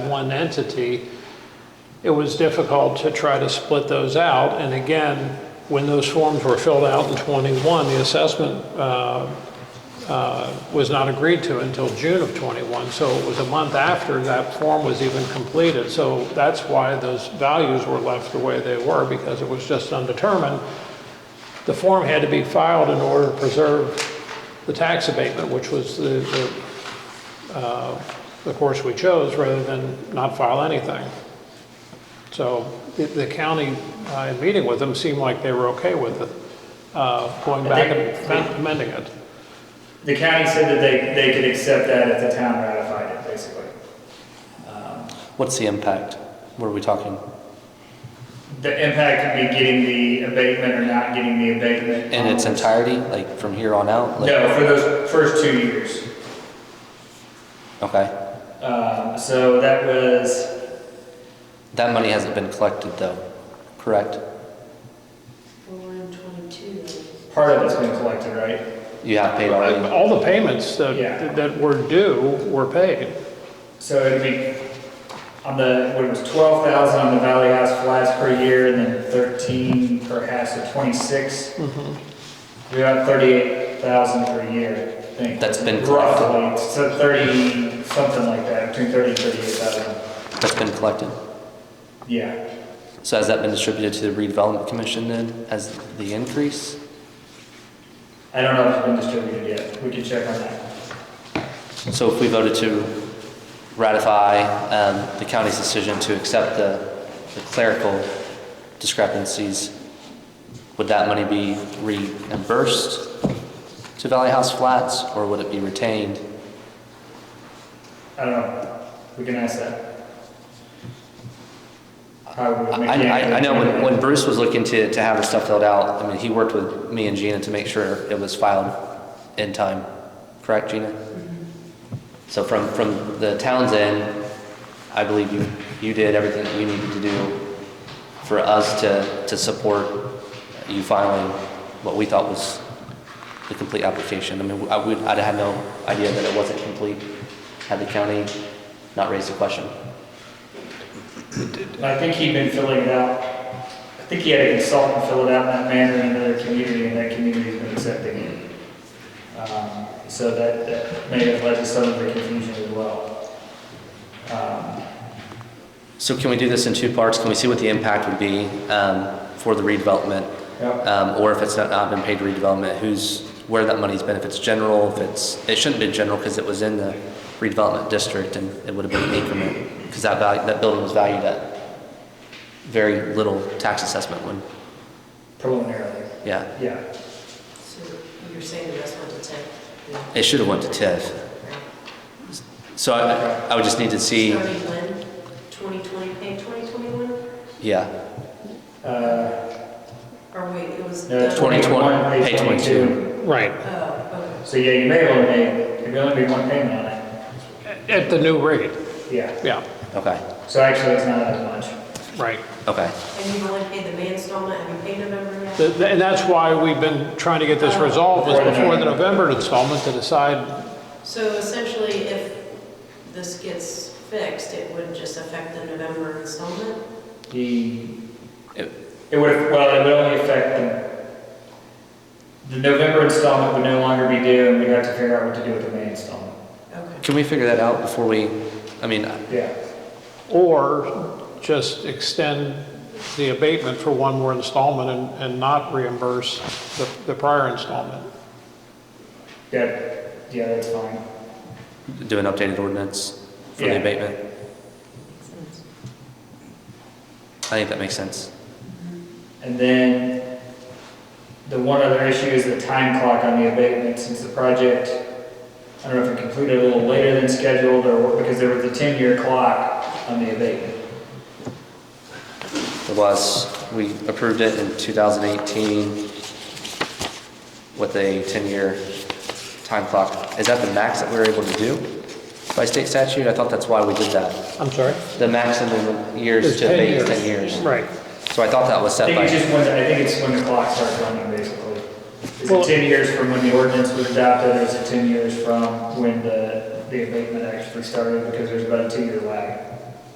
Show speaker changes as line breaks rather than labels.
one entity, it was difficult to try to split those out. And again, when those forms were filled out in '21, the assessment uh, uh, was not agreed to until June of '21. So it was a month after that form was even completed. So that's why those values were left the way they were, because it was just undetermined. The form had to be filed in order to preserve the tax abatement, which was the, the, uh, the course we chose, rather than not file anything. So the- the county, uh, in meeting with them, seemed like they were okay with it, uh, going back and amend- amending it.
The county said that they, they could accept that if the town ratified it, basically.
What's the impact? What are we talking?
The impact could be getting the abatement or not getting the abatement.
In its entirety, like from here on out? Like-
No, for those first two years.
Okay.
Um, so that was,
That money hasn't been collected though, correct?
Well, we're on twenty-two.
part of it's been collected, right?
You have paid already?
All the payments
Yeah.
that, that were due were paid.
So it'd be on the, what it was, twelve thousand on the Valley House flats per year, and then thirteen per house, so twenty-six. You're about thirty-eight thousand per year, I think.
Mm-hmm. That's been collected.
Roughly, so thirty, something like that, between thirty and thirty-eight thousand,
That's been collected.
yeah.
So has that been distributed to the redevelopment commission then as the increase?
I don't know if it's been distributed yet, we can check on that.
So if we voted to ratify um, the county's decision to accept the the clerical discrepancies, would that money be reimbursed to Valley House Flats, or would it be retained?
I don't know, we can ask that. How would
I,
we-
I, I know when, when Bruce was looking to, to have the stuff filled out, I mean, he worked with me and Gina to make sure it was filed in time, correct, Gina? So from, from the town's end, I believe you, you did everything that you needed to do for us to, to support you filing what we thought was the complete application. I mean, I would, I'd had no idea that it wasn't complete had the county not raised the question.
I think he'd been filling it out, I think he had a consultant fill it out in that manner in another community, and that community's been accepting it. Um, So that, that may have led to some of the confusion as well. Um,
So can we do this in two parts? Can we see what the impact would be um, for the redevelopment?
Yep.
Um, Or if it's not- not been paid redevelopment, who's, where that money's been, if it's general, if it's, it shouldn't be general because it was in the redevelopment district and it would have been an increment because that value, that building was valued at very little tax assessment when,
Preliminarily,
yeah.
yeah.
So you're saying the rest went to ten? yeah.
It should have went to TIF. So I, I would just need to see,
Starting when? Twenty twenty, eh, twenty twenty-one?
yeah.
Uh,
Or wait, it was.
no,
done-
20.
21,
pay 22.
Right.
Oh,
So yeah, you may have only made, there could only be one payment on it,
At the new rate,
yeah.
yeah,
Okay,
So actually, it's not that much.
right.
okay.
okay. And you've only paid the May installment, have you paid November yet?
Th- th- And that's why we've been trying to get this resolved, was before the November installment to decide,
So essentially, if this gets fixed, it would just affect the November installment?
The,
It-
it would, well, it would only affect the, the November installment would no longer be due, and we'd have to figure out what to do with the May installment.
Okay.
Can we figure that out before we, I mean,
Yeah,
or just extend the abatement for one more installment and, and not reimburse the, the prior installment.
yeah, yeah, that's fine.
do an updated ordinance for
Yeah.
the abatement. I think that makes sense.
And then, the one other issue is the time clock on the abatement, since the project, I don't know if it completed a little later than scheduled, or, what- because there was a ten-year clock on the abatement.
It was, we approved it in 2018 with a 10-year time clock. Is that the max that we were able to do by state statute? I thought that's why we did that.
I'm sorry?
The maximum years to abate is 10 years.
Right.
So I thought that was
I
set
think it's
by,
just when, I think it's when the clock starts running, basically. Is
Well-
it ten years from when the ordinance was adopted, or is it ten years from when the, the abatement actually started? Because there's about a two-year lag.